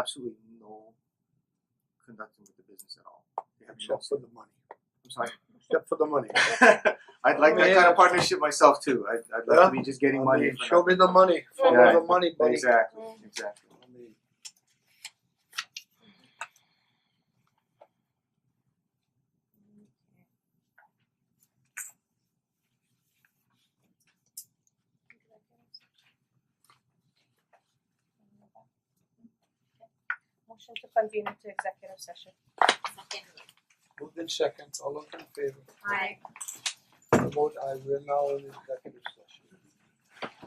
absolutely no conducting with the business at all. They have no, Except for the money. I'm sorry. Except for the money. I'd like that kind of partnership myself too. I'd, I'd love to be just getting I money. mean, for show me the money. Follow Yeah. the money, nothing. buddy. Exactly. Exactly. I mean, Motion to convene into executive session. moved in second. All those in favor? Aye. I vote aye. We're now in executive session.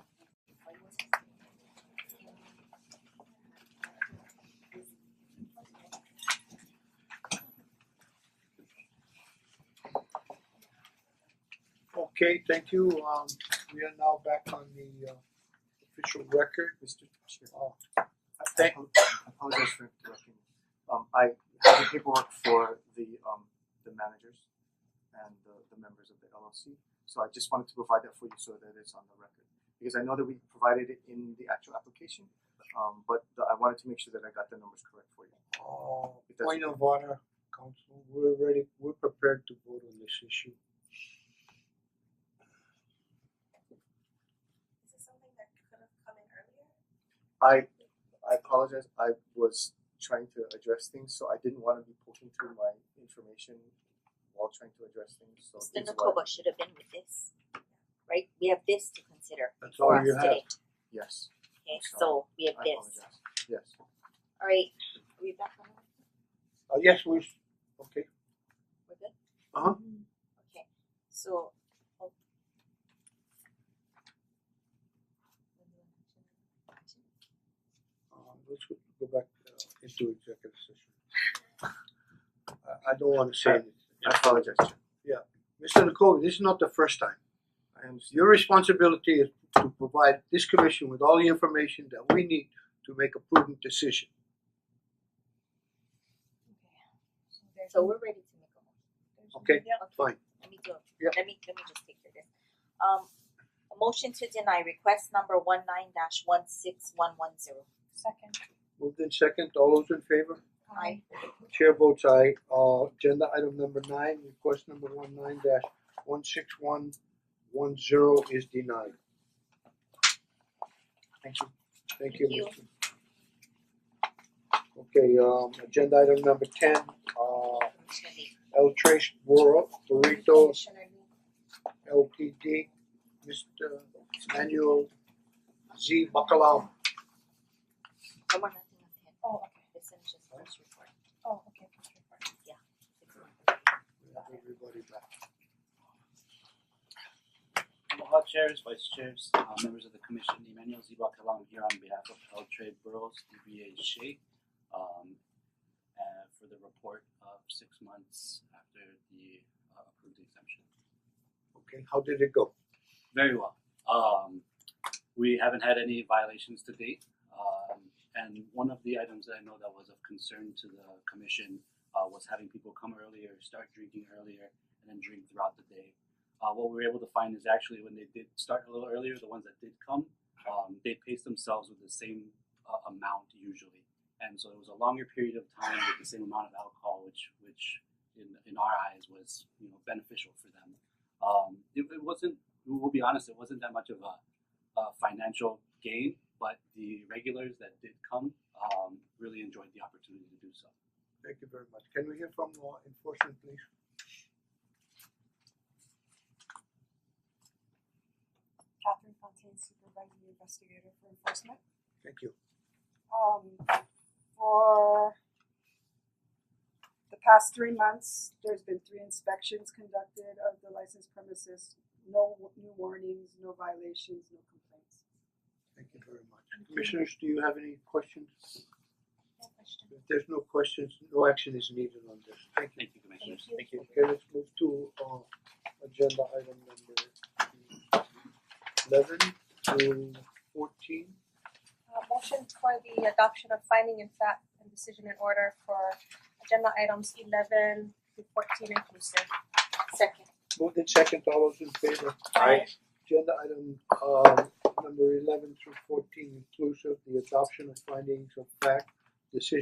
Okay, thank you. Um, we are now back on the uh, official record. Mr. Chair. Uh, I- I Thank- apo- I apologize for interrupting. Um I have the paperwork for the um the managers and the the members of the LLC. So I just wanted to provide that for you so that it's on the record. Because I know that we provided it in the actual application, um but the- I wanted to make sure that I got the numbers correct for you. uh, point of order, council. We're ready. We're prepared to vote on this issue. Is this something that could have come in I earlier? I apologize, I was trying to address things, so I didn't wanna be poking through my information while trying to address things, so Mr. these were, Nakoba should have been with this, right? We have this to consider That's all for us Oh, you have. today, yes, okay, Sorry. so we I have this, apologize, yes. alright, are we back on, that? Uh, yes, we. Okay. we're good? Uh-huh. Okay, so. oh. Uh, let's go go back uh, into executive session. Uh, I, I don't wanna say anything. I apologize, Chair. Mister Nakobe, this is not the first time. I understand. Your responsibility is to provide this commission with all the information that we need to make a prudent decision. Okay, so we're ready to make a motion, Okay, Yeah. fine. let me do, Yeah. it. let me, let me just take care of this. Um, a motion to deny request number one nine dash one six one one zero. Second. Moved in second, all those in favor? Um, Aye. Chair votes aye. Uh, agenda item number nine, request number one nine dash one six one one zero is denied. Thank you. Thank you, Thank you. Mr. Okay, um, agenda item number ten, uh, Commissioner Lee. El Trace Bor- Burrito Commissioner Lee. LTD, Mister Manuel Z Bacalao. Come on, nothing up here. Oh, okay, This is just first report. oh, okay, first report. We have Everybody back. Aloha chairs, vice chairs, uh members of the commission, Emmanuel Zibakalam here on behalf of L Trade Burrows, DBA Shake. Um uh for the report of six months after the uh, approved exemption. Okay, how did it go? Very well. Um we haven't had any violations to date. Um and one of the items that I know that was of concern to the commission uh was having people come earlier, start drinking earlier, and then drink throughout the day. Uh what we were able to find is actually when they did start a little earlier, the ones that did come, um they paced themselves with the same uh, amount usually. And so it was a longer period of time with the same amount of alcohol, which which in in our eyes was, you know, beneficial for them. Um it it wasn't we'll be honest, it wasn't that much of a, a financial gain, but the regulars that did come um, really enjoyed the opportunity to do so. Thank you very much. Can we hear from law enforcement, please? Catherine Fontaine, supervising investigator for enforcement. Thank you. Um, for the past three months, there's been three inspections conducted of the licensed premises. No w- new warnings, no violations, no complaints. Thank you very much. Commissioners, do you have any questions? No question. If there's no questions, no action is needed on this. Thank you. Thank you, commissioners. Thank you. Okay, let's move to uh agenda item number eleven to fourteen. Uh, motion for the adoption of finding in fact and decision in order for agenda items eleven to fourteen inclusive. Second. Moved in second, all those in favor? Aye. Agenda item uh, um number eleven through fourteen inclusive, the adoption of findings of fact decision